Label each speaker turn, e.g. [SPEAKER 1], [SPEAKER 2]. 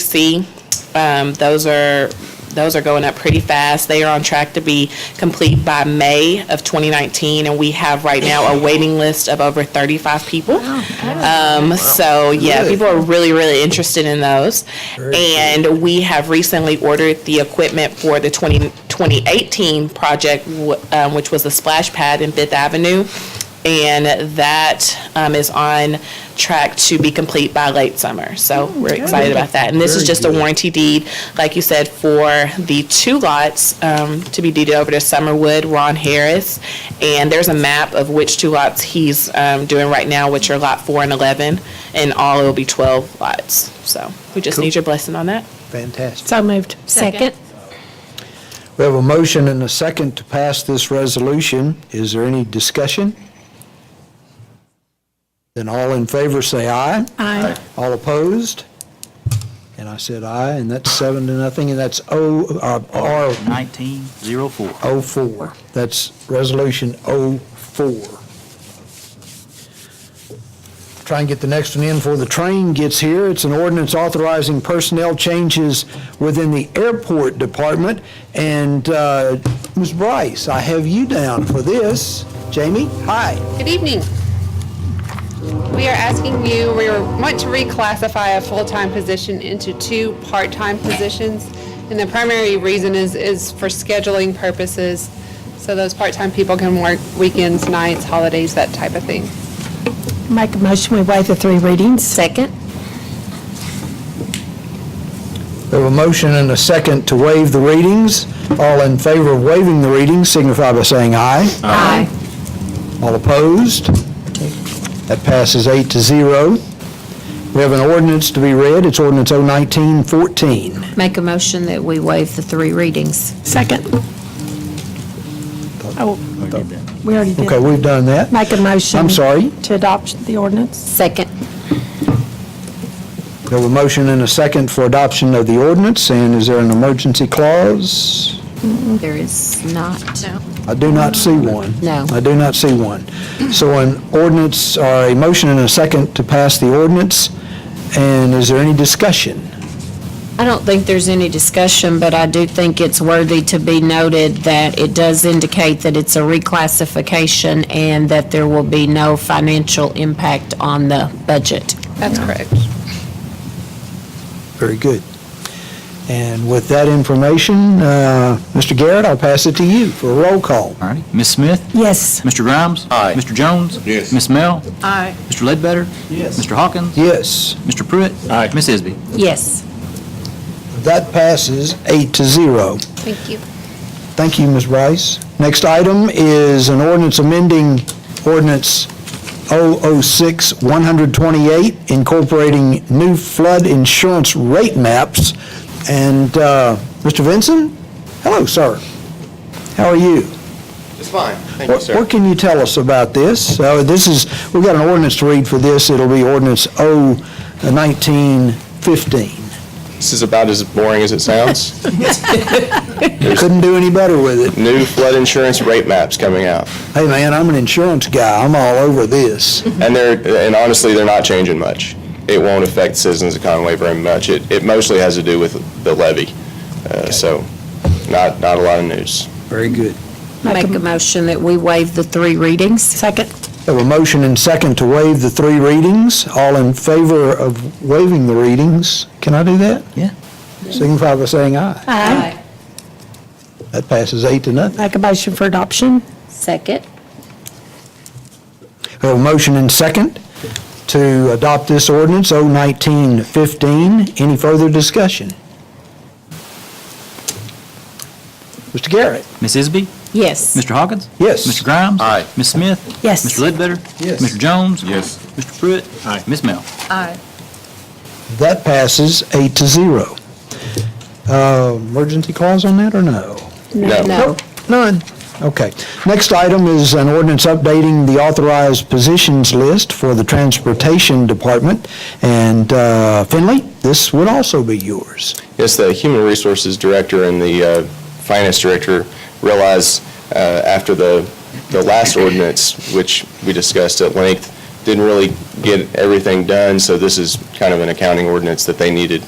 [SPEAKER 1] PC. Um, Those are, those are going up pretty fast. They are on track to be complete by May of 2019, and we have right now a waiting list of over 35 people. Um, So, yeah, people are really, really interested in those. And we have recently ordered the equipment for the 20 2018 project, wh- um, which was the splash pad in Fifth Avenue, and that um, is on track to be complete by late summer. So we're excited about that. And this is
[SPEAKER 2] Very
[SPEAKER 1] just a
[SPEAKER 2] good.
[SPEAKER 1] warranty deed, like you said, for the two lots um, to be deeded over to Summerwood, Ron Harris. And there's a map of which two lots he's um, doing right now, which are Lot 4 and 11, and all it will be 12 lots. So we just need your blessing on that.
[SPEAKER 2] Fantastic.
[SPEAKER 3] So moved. Second.
[SPEAKER 2] We have a motion and a second to pass this resolution. Is there any discussion? Then all in favor say aye.
[SPEAKER 3] Aye.
[SPEAKER 2] All opposed? And I said aye, and that's seven to nothing, and that's O, uh, R
[SPEAKER 4] 1904.
[SPEAKER 2] 04. That's Resolution 04. Try and get the next one in before the train gets here. It's an ordinance authorizing personnel changes within the airport department. And uh, Ms. Bryce, I have you down for this. Jamie, hi.
[SPEAKER 5] Good evening. We are asking you, we want to reclassify a full-time position into two part-time positions. And the primary reason is, is for scheduling purposes. So those part-time people can work weekends, nights, holidays, that type of thing.
[SPEAKER 3] Make a motion, we waive the three readings. Second.
[SPEAKER 2] We have a motion and a second to waive the readings. All in favor of waiving the readings signify by saying aye.
[SPEAKER 3] Aye.
[SPEAKER 2] All opposed? That passes eight to zero. We have an ordinance to be read. It's ordinance 019-14.
[SPEAKER 6] Make a motion that we waive the three readings.
[SPEAKER 3] Second. Oh, we already did.
[SPEAKER 2] Okay, we've done that.
[SPEAKER 3] Make a motion.
[SPEAKER 2] I'm sorry.
[SPEAKER 3] To adopt the ordinance.
[SPEAKER 6] Second.
[SPEAKER 2] We have a motion and a second for adoption of the ordinance, and is there an emergency clause?
[SPEAKER 6] There is not.
[SPEAKER 2] I do not see one.
[SPEAKER 6] No.
[SPEAKER 2] I do not see one. So an ordinance, or a motion and a second to pass the ordinance, and is there any discussion?
[SPEAKER 6] I don't think there's any discussion, but I do think it's worthy to be noted that it does indicate that it's a reclassification and that there will be no financial impact on the budget.
[SPEAKER 5] That's correct.
[SPEAKER 2] Very good. And with that information, uh, Mr. Garrett, I'll pass it to you for a roll call.
[SPEAKER 4] All righty. Ms. Smith?
[SPEAKER 3] Yes.
[SPEAKER 4] Mr. Grimes? Aye. Mr. Jones? Yes. Ms. Mel? Aye. Mr. Ledbetter? Yes. Mr. Hawkins?
[SPEAKER 2] Yes,
[SPEAKER 4] Mr. Pruitt? Aye. Ms. Isby?
[SPEAKER 6] Yes.
[SPEAKER 2] that passes eight to zero.
[SPEAKER 5] Thank you.
[SPEAKER 2] Thank you, Ms. Bryce. Next item is an ordinance amending ordinance 006-128 incorporating new flood insurance rate maps. And uh, Mr. Vinson? Hello, sir. How are you?
[SPEAKER 7] It's fine, thank you,
[SPEAKER 2] What
[SPEAKER 7] sir.
[SPEAKER 2] what can you tell us about this? Uh, This is, we've got an ordinance to read for this. It'll be ordinance O 1915.
[SPEAKER 7] This is about as boring as it sounds.
[SPEAKER 2] Couldn't do any better with it.
[SPEAKER 7] New flood insurance rate maps coming out.
[SPEAKER 2] Hey, man, I'm an insurance guy. I'm all over this.
[SPEAKER 7] And they're, and honestly, they're not changing much. It won't affect citizens of Conway very much. It, it mostly has to do with the levy. Uh, So, not, not a lot of news.
[SPEAKER 2] Very good.
[SPEAKER 6] Make a motion that we waive the three readings.
[SPEAKER 3] Second.
[SPEAKER 2] Have a motion and second to waive the three readings. All in favor of waiving the readings, can I do that?
[SPEAKER 4] Yeah.
[SPEAKER 2] Signify by saying aye.
[SPEAKER 3] Aye.
[SPEAKER 2] That passes eight to nothing.
[SPEAKER 3] Make a motion for adoption.
[SPEAKER 6] Second.
[SPEAKER 2] We have a motion and second to adopt this ordinance, O 1915. Any further discussion? Mr. Garrett?
[SPEAKER 4] Ms. Isby?
[SPEAKER 6] Yes.
[SPEAKER 4] Mr. Hawkins?
[SPEAKER 2] Yes.
[SPEAKER 4] Mr. Grimes?
[SPEAKER 7] Aye.
[SPEAKER 4] Ms. Smith?
[SPEAKER 3] Yes.
[SPEAKER 4] Mr. Ledbetter?
[SPEAKER 2] Yes.
[SPEAKER 4] Mr. Jones?
[SPEAKER 7] Yes.
[SPEAKER 4] Mr. Pruitt? Aye. Ms. Mel?
[SPEAKER 2] That passes eight to zero. Uh, Emergency clause on that or no?
[SPEAKER 7] No.
[SPEAKER 2] Nope, None. Okay. Next item is an ordinance updating the authorized positions list for the Transportation Department. And uh, Finley, this would also be yours.
[SPEAKER 7] Yes, the Human Resources Director and the uh, Finance Director realized uh, after the, the last ordinance, which we discussed at length, didn't really get everything done, so this is kind of an accounting ordinance that they needed